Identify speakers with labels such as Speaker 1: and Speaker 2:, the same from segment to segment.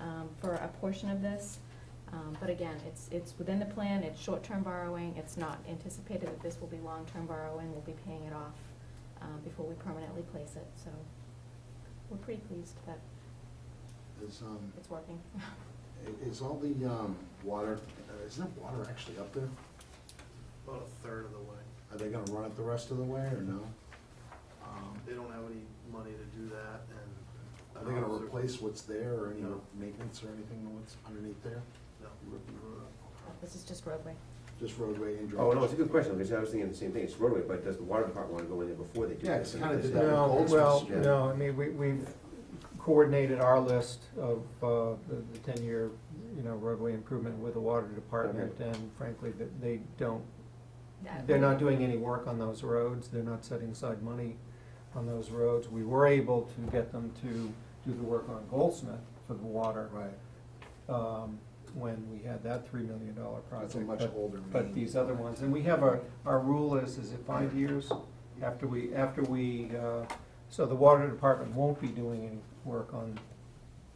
Speaker 1: um, portion of this. Um, But again, it's, it's within the plan, it's short-term borrowing, it's not anticipated that this will be long-term borrowing, we'll be paying it off um, before we permanently place it, so we're pretty pleased that
Speaker 2: Is, um,
Speaker 1: it's working.
Speaker 2: i- is all the, um, water, uh, is there water actually up there?
Speaker 3: About a third of the way.
Speaker 2: Are they gonna run it the rest of the way or no? Um,
Speaker 3: They don't have any money to do that and.
Speaker 2: Are they gonna replace what's there or any
Speaker 3: No.
Speaker 2: maintenance or anything that's underneath there?
Speaker 3: No.
Speaker 1: This is just roadway.
Speaker 2: Just roadway and
Speaker 4: Oh,
Speaker 2: drainage?
Speaker 4: no, it's a good question, because I was thinking the same thing, it's roadway, but does the water department wanna go in there before they do
Speaker 2: Yeah,
Speaker 4: this?
Speaker 2: it's kinda did that.
Speaker 5: No,
Speaker 2: Goldsmith
Speaker 5: well,
Speaker 4: Street.
Speaker 5: no, I mean, we, we've coordinated our list of, uh, the the ten-year, you know, roadway improvement with the water department,
Speaker 4: Okay.
Speaker 5: and frankly, that they don't,
Speaker 1: That-
Speaker 5: they're not doing any work on those roads, they're not setting aside money on those roads. We were able to get them to do the work on Goldsmith for the water,
Speaker 2: Right,
Speaker 5: um, when we had that three million dollar project.
Speaker 2: that's a much
Speaker 5: but-
Speaker 2: older.
Speaker 5: but
Speaker 2: main.
Speaker 5: these other ones, and we have our, our rule is, is it five years after we, after we, uh, so the water department won't be doing any work on,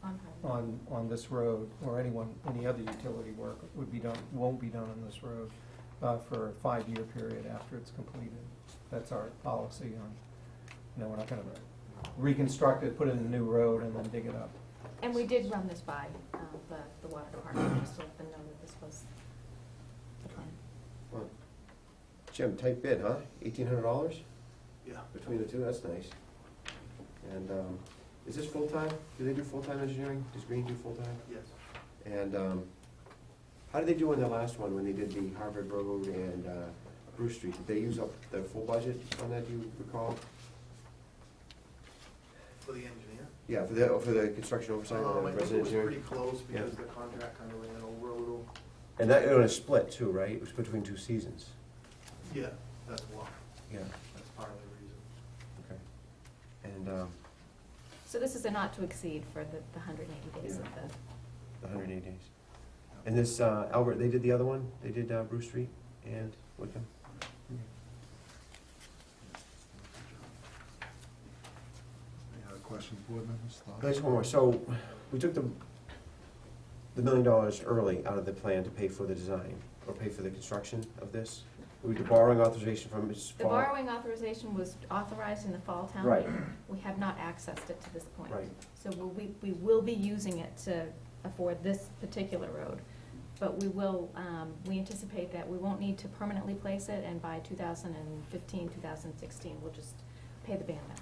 Speaker 1: On highway.
Speaker 5: on, on this road, or anyone, any other utility work would be done, won't be done on this road, uh, for a five-year period after it's completed. That's our policy on, you know, we're not gonna reconstruct it, put in a new road, and then dig it up.
Speaker 1: And we did run this by uh, the, the water department, just to let them know that this was the plan.
Speaker 4: Well, Jim, tight bid, huh? Eighteen hundred dollars
Speaker 3: Yeah.
Speaker 4: between the two, that's nice. And, um, is this full-time? Do they do full-time engineering? Does Green do full-time?
Speaker 3: Yes.
Speaker 4: And, um, how did they do on the last one, when they did the Harvard Road and, uh, Bruce Street? Did they use up their full budget on that, do you recall?
Speaker 3: For the engineer.
Speaker 4: Yeah, for the, for the construction oversight
Speaker 3: Um, I
Speaker 4: on the
Speaker 3: think
Speaker 4: resident
Speaker 3: it was
Speaker 4: engineering?
Speaker 3: pretty close
Speaker 4: Yeah.
Speaker 3: because the contract kind of ran over a little.
Speaker 4: And that, it was split too, right? It was between two seasons.
Speaker 3: Yeah, that's why.
Speaker 4: Yeah.
Speaker 3: That's part of the reason.
Speaker 4: Okay. And, um,
Speaker 1: So this is a not to exceed for the, the hundred and eighty days of
Speaker 4: Yeah.
Speaker 1: the,
Speaker 4: the hundred and eighty days. And this, uh, Albert, they did the other one? They did, uh, Bruce Street and Wickham?
Speaker 2: Any other questions, board members? Thoughts?
Speaker 4: There's one more. So, we took the, the million dollars early out of the plan to pay for the design, or pay for the construction of this? We did borrowing authorization from Mrs.
Speaker 1: the
Speaker 4: Fall.
Speaker 1: borrowing authorization was authorized in the fall town
Speaker 4: Right.
Speaker 1: meeting. We have not accessed it to this point.
Speaker 4: Right.
Speaker 1: So we'll- we, we will be using it to afford this particular road. But we will, um, we anticipate that we won't need to permanently place it, and by 2015, 2016, we'll just pay the band back.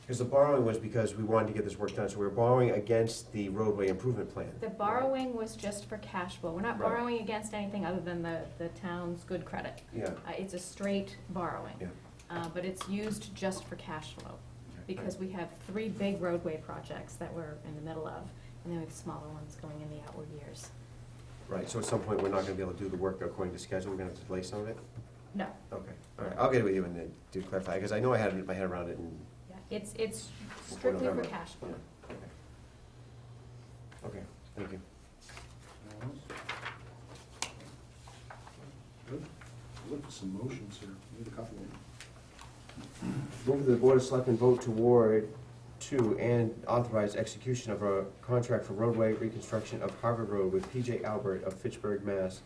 Speaker 4: Because the borrowing was because we wanted to get this work done, so we were borrowing against the roadway improvement plan.
Speaker 1: The borrowing was just for cash flow. We're not
Speaker 4: Right.
Speaker 1: borrowing against anything other than the, the town's good credit.
Speaker 4: Yeah,
Speaker 1: Uh, It's a straight borrowing.
Speaker 4: yeah.
Speaker 1: uh, but it's used just for cash flow, because we have three big roadway projects that we're in the middle of, and then we have smaller ones going in the outward years.
Speaker 4: Right, so at some point, we're not gonna be able to do the work according to schedule, we're gonna have to delay some of it?
Speaker 1: No,
Speaker 4: Okay, all right, I'll get it with you and then do clarify, because I know I had it in my head around it and.
Speaker 1: yeah, it's, it's strictly for
Speaker 4: November.
Speaker 1: cash flow.
Speaker 4: Yeah, okay. Okay, thank you.
Speaker 2: Anyone else? Good. Look for some motions here. Need a couple of them.
Speaker 4: Move that the Board of Selectmen vote toward to and authorize execution of a contract for roadway reconstruction of Harvard Road with PJ Albert of Fitchburg, Mass.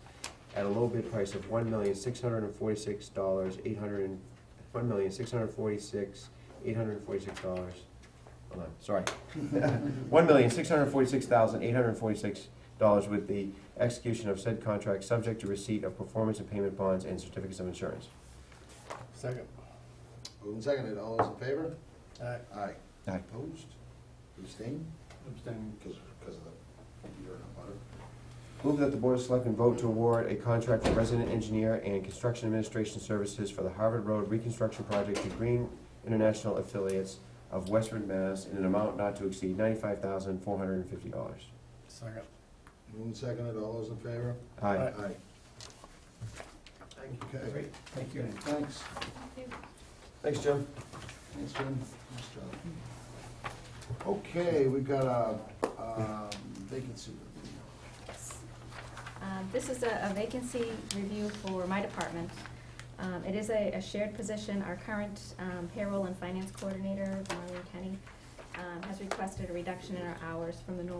Speaker 4: at a low bid price of one million, six hundred and forty-six dollars, eight hundred and, one million, six hundred and forty-six, eight hundred and forty-six dollars. Hold on, sorry. One million, six hundred and forty-six thousand, eight hundred and forty-six dollars with the execution of said contract, subject to receipt of performance and payment bonds and certificates of insurance.
Speaker 3: Second.
Speaker 2: Moved and seconded. All those in favor?
Speaker 3: All right.
Speaker 2: Aye.
Speaker 4: Aye.
Speaker 2: Opposed? Abstained? Abstained. Because, because of the, you're in a butter.
Speaker 4: Move that the Board of Selectmen vote to award a contract for resident engineer and construction administration services for the Harvard Road reconstruction project to Green International Affiliates of Westford, Mass. in an amount not to exceed ninety-five thousand, four hundred and fifty dollars.
Speaker 3: Second.
Speaker 2: Moved and seconded. All those in favor?
Speaker 4: Aye.
Speaker 2: Aye.
Speaker 3: Thank you.
Speaker 2: Okay.
Speaker 5: Thank you.
Speaker 2: Thanks.
Speaker 4: Thanks, Jim.
Speaker 2: Thanks, Jim. Nice job. Okay, we've got a, um, vacancy.
Speaker 1: Um, This is a a vacancy review for my department. Um, It is a a shared position. Our current um, payroll and finance coordinator, Marlene Kenny, um, has requested a reduction in our hours from the normal